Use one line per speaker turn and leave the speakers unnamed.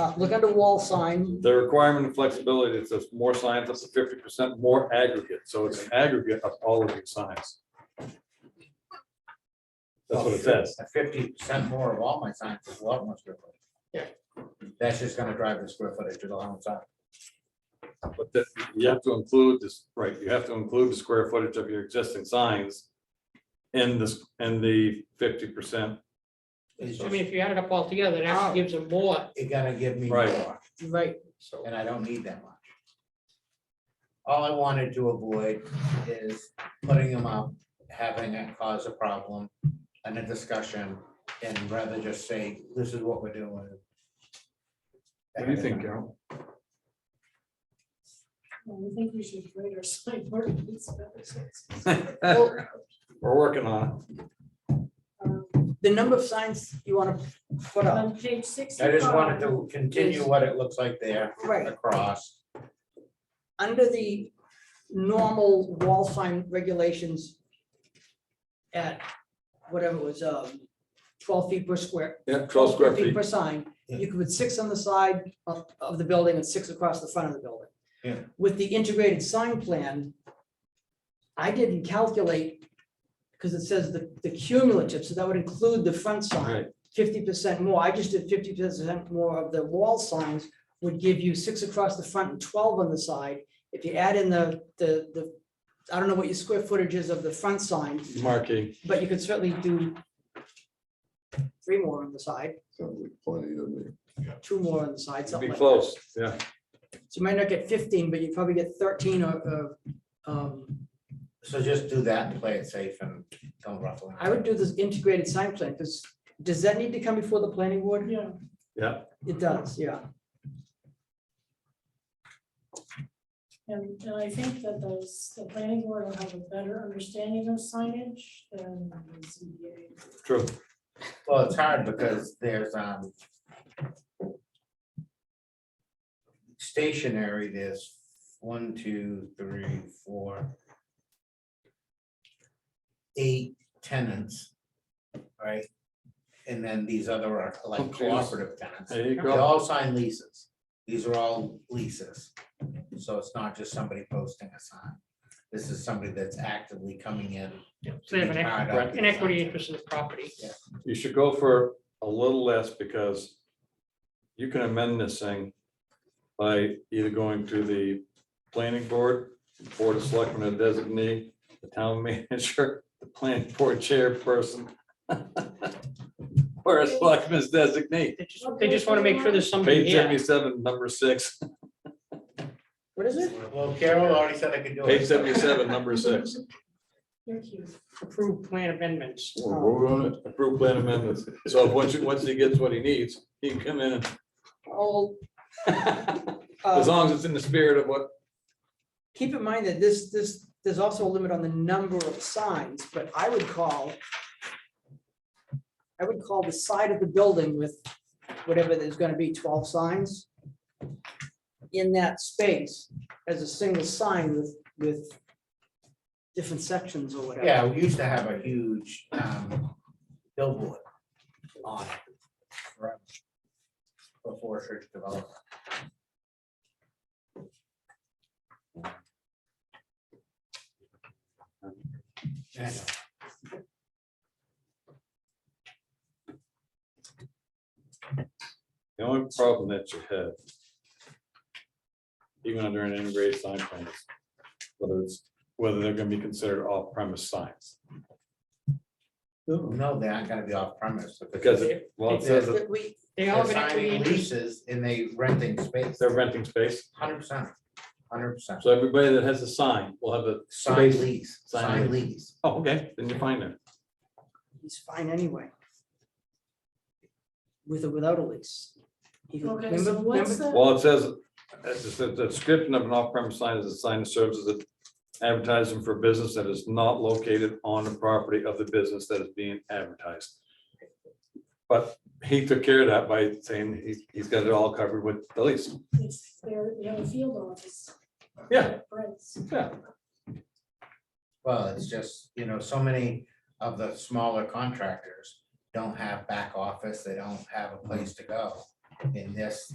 Uh, Look under wall sign,
The requirement of flexibility, it says more signs up to fifty percent more aggregate, so it's an aggregate of all of your signs. That's what it says.
Fifty percent more of all my signs is a lot more square footage. Yeah. That's just gonna drive the square footage to the whole sign.
But that, you have to include this, right, you have to include the square footage of your existing signs in this, in the fifty percent.
It's
I
just,
mean, if you add it up all together, it
Oh.
actually gives them more.
it's gonna give me
Right.
more,
Right.
so.
and I don't need that much. All I wanted to avoid is putting them up, having it cause a problem and a discussion, and rather just say, this is what we're doing.
What do you think, Carol?
Well, I think we should grade our sign ordinance better. so it's-
We're working on
um,
The number of signs you want to put up,
On page sixty.
I just wanted to continue what it looks like there
Right.
across.
under the normal wall sign regulations at whatever it was, um, twelve feet per square,
it. Yeah, twelve square
15
feet.
Per sign, you could put six on the side of, of the building and six across the front of the building.
Yeah.
With the integrated sign plan, I didn't calculate, because it says the, the cumulative, so that would include the front sign,
Right.
fifty percent more, I just did fifty percent more of the wall signs would give you six across the front and twelve on the side. If you add in the, the, the, I don't know what your square footage is of the front sign,
Marking,
but you could certainly do three more on the side.
Sounds like plenty to me.
two more on the side,
be
something like that.
close, yeah.
So you might not get fifteen, but you probably get thirteen or, or, um,
So just do that and play it safe and don't ruffle.
I would do this integrated sign plan, because does that need to come before the planning board?
Yeah,
It does, yeah.
and, and I think that those, the planning board will have a better understanding of signage than the ZBA.
True.
Well, it's hard because there's, um. Stationary, there's one, two, three, four. Eight tenants, right? And then these other are like
Okay.
cooperative tenants.
There you
They
go.
all sign leases. These are all leases. So it's not just somebody posting a sign. This is somebody that's actively coming in.
So they have an
to be
equity,
part of the
an equity
sign.
interest in the property.
You should go for a little less because you can amend this thing by either going to the planning board, board of selectmen or designee, the town manager, the planning board chairperson. Or a selectman's designee.
They just, they just want to make sure there's somebody
Page
here.
seventy-seven, number six,
What is it?
Well, Carol already said I could do it.
page seventy-seven, number six,
You're cute.
Approved plan amendments.
We'll vote on it.
approve plan amendments. So once, you- once he gets what he needs, he can come in and,
All, Uh,
as long as it's in the spirit of what
keep in mind that this, this, there's also a limit on the number of signs, but I would call, I would call the side of the building with whatever there's gonna be, twelve signs in that space as a single sign with, with different sections or whatever.
Yeah, we used to have a huge um, billboard on it. right, Before church development. Yeah,
The only problem that you have. Even under an integrated sign plan is whether it's, whether they're gonna be considered off premise signs.
No, they're not gonna be off premise.
Because it, well, it says that
That we,
They all
They're
have an equity
signing
interest.
leases and they renting space,
they're renting space,
hundred percent, hundred percent.
so everybody that has a sign will have a,
Sign lease,
Sign
sign lease.
oh, okay, then you find it.
he's fine anyway. With or without a lease. He could-
Okay,
remember-
so what's
remember-
the?
Well, it says, it's just that the description of an off premise sign is a sign that serves as an advertisement for a business that is not located on the property of the business that is being advertised. But he took care of that by saying he's, he's got it all covered with the lease.
It's their, they have a field office.
Yeah.
Friends.
Yeah.
Well, it's just, you know, so many of the smaller contractors don't have back office, they don't have a place to go. in this